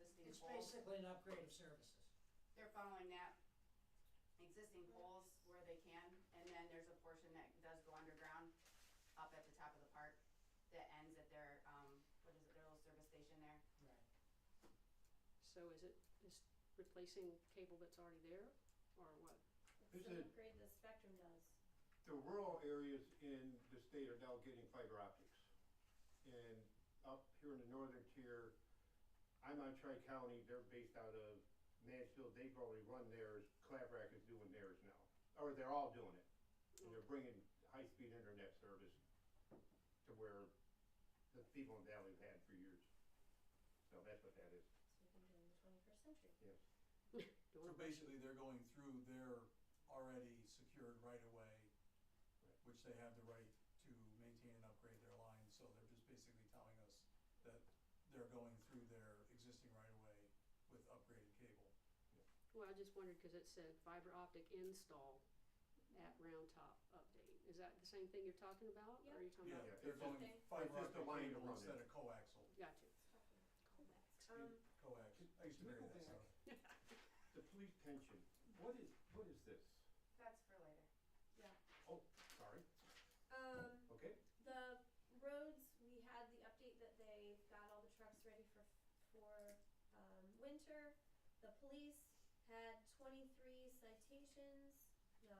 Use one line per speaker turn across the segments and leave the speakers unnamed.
poles,
basically an upgrade of services.
they're following that existing poles where they can, and then there's a portion that does go underground up at the top of the park that ends at their, um, what is it, their little service station there.
Right.
So is it, is replacing cable that's already there, or what?
It's
It's
an
an
upgrade the Spectrum does.
The rural areas in the state are now getting fiber optics. And up here in the northern tier, I'm on Tri-County, they're based out of Mansfield, they've already run theirs, Claprack is doing theirs now. Or they're all doing it, and they're bringing high-speed internet service to where the people in the valley have had for years. So that's what that is,
So we can do it in the twenty-first century.
Do you
yes.
So
wanna-
basically, they're going through their already secured right of way,
Right.
which they have the right to maintain and upgrade their lines, so they're just basically telling us that they're going through their existing right of way with upgraded cable.
Well, I just wondered, cause it said fiber optic install at Round Top update. Is that the same thing you're talking about, or are you talking about?
Yeah, they're
it's
going
just-
fiber
it's just a
optic
line to
cable
run
instead
it.
of coaxial.
Got you.
Um,
Coax, I used to marry
Go
that
back.
stuff.
The police pension, what is, what is this?
That's for later.
yeah.
Oh, sorry,
Um,
okay,
the roads, we had the update that they've got all the trucks ready for, for, um, winter. The police had twenty-three citations, no,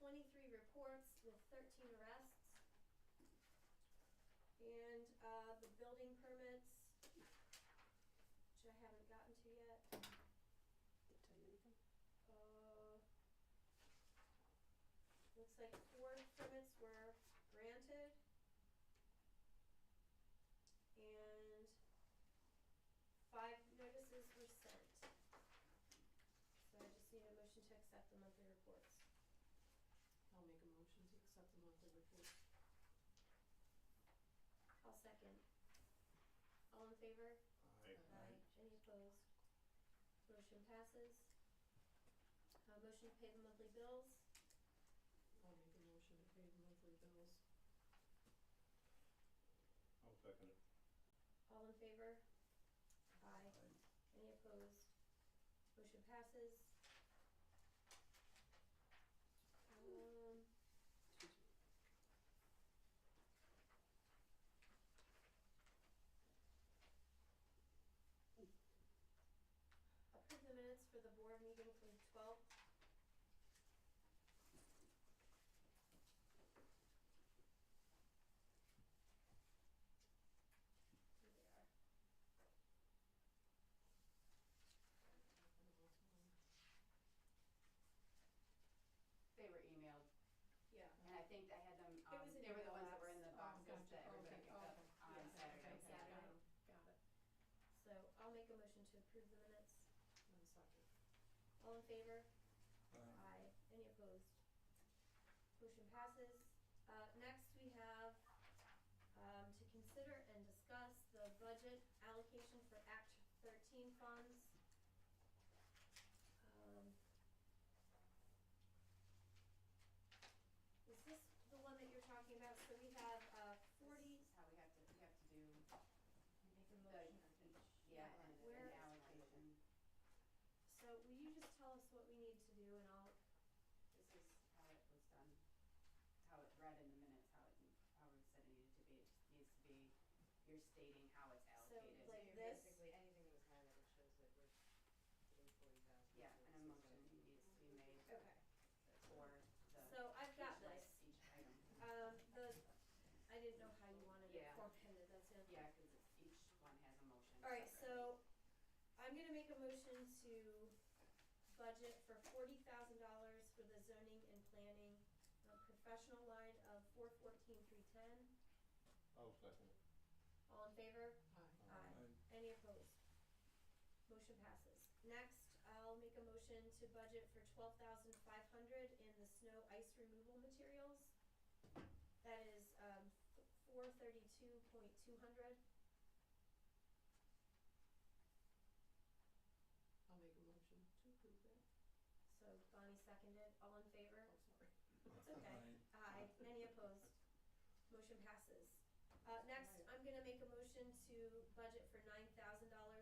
twenty-three reports with thirteen arrests. And, uh, the building permits, which I haven't gotten to yet.
Didn't tell you anything.
Uh, Looks like four permits were granted. And five notices were sent. So I just need a motion to accept the monthly reports.
I'll make a motion to accept the monthly report.
I'll second. All in favor?
I,
Aye.
Any opposed? Motion passes. Uh, motion to pay the monthly bills.
I'll make a motion to pay the monthly bills.
I'll second it.
All in favor? Aye.
Aye.
Any opposed? Motion passes. Um,
Excuse me.
approve the minutes for the board meeting from the twelfth. Here they are.
They were emailed,
Yeah.
and I think I had them,
It
um,
was in
they were the
your
ones that were
box.
in the
Oh,
boxes that
gotcha.
everybody
Okay,
picked up on
okay. Yes,
Saturday.
Saturday.
okay, got it, Got it,
So I'll make a motion to approve the minutes.
one second.
All in favor? Aye.
Aye.
Any opposed? Motion passes. Uh, next we have, um, to consider and discuss the budget allocation for Act thirteen funds. Um, Is this the one that you're talking about? So we have, uh, forty,
This is how we have to, we have to do
make a
the,
motion
yeah, and the
Where-
allocation.
so will you just tell us what we need to do and I'll,
This is how it was done, how it read in the minutes, how it, how it said it needed to be, it needs to be, you're stating how it's
So,
allocated.
like-
Here,
this?
Basically, anything that was highlighted shows that we're getting forty
Yeah,
thousand.
and a motion needs to be made
okay.
for the.
So I've got
each li-
this.
Each item.
Um, the, I didn't know how you wanted it
Yeah.
formatted, that's the only thing.
Yeah, cause it's, each one has a motion
Alright,
separately.
so I'm gonna make a motion to budget for forty thousand dollars for the zoning and planning uh, professional line of four fourteen three ten.
I'll second it.
All in favor?
Aye.
Aye.
Aye.
Any opposed? Motion passes. Next, I'll make a motion to budget for twelve thousand five hundred in the snow ice removal materials. That is, um, four thirty-two point two hundred.
I'll make a motion to approve that.
So Bonnie seconded, all in favor?
Oh, sorry.
It's okay. Aye, any opposed? Motion passes. Uh, next, I'm gonna make a motion to budget for nine thousand dollars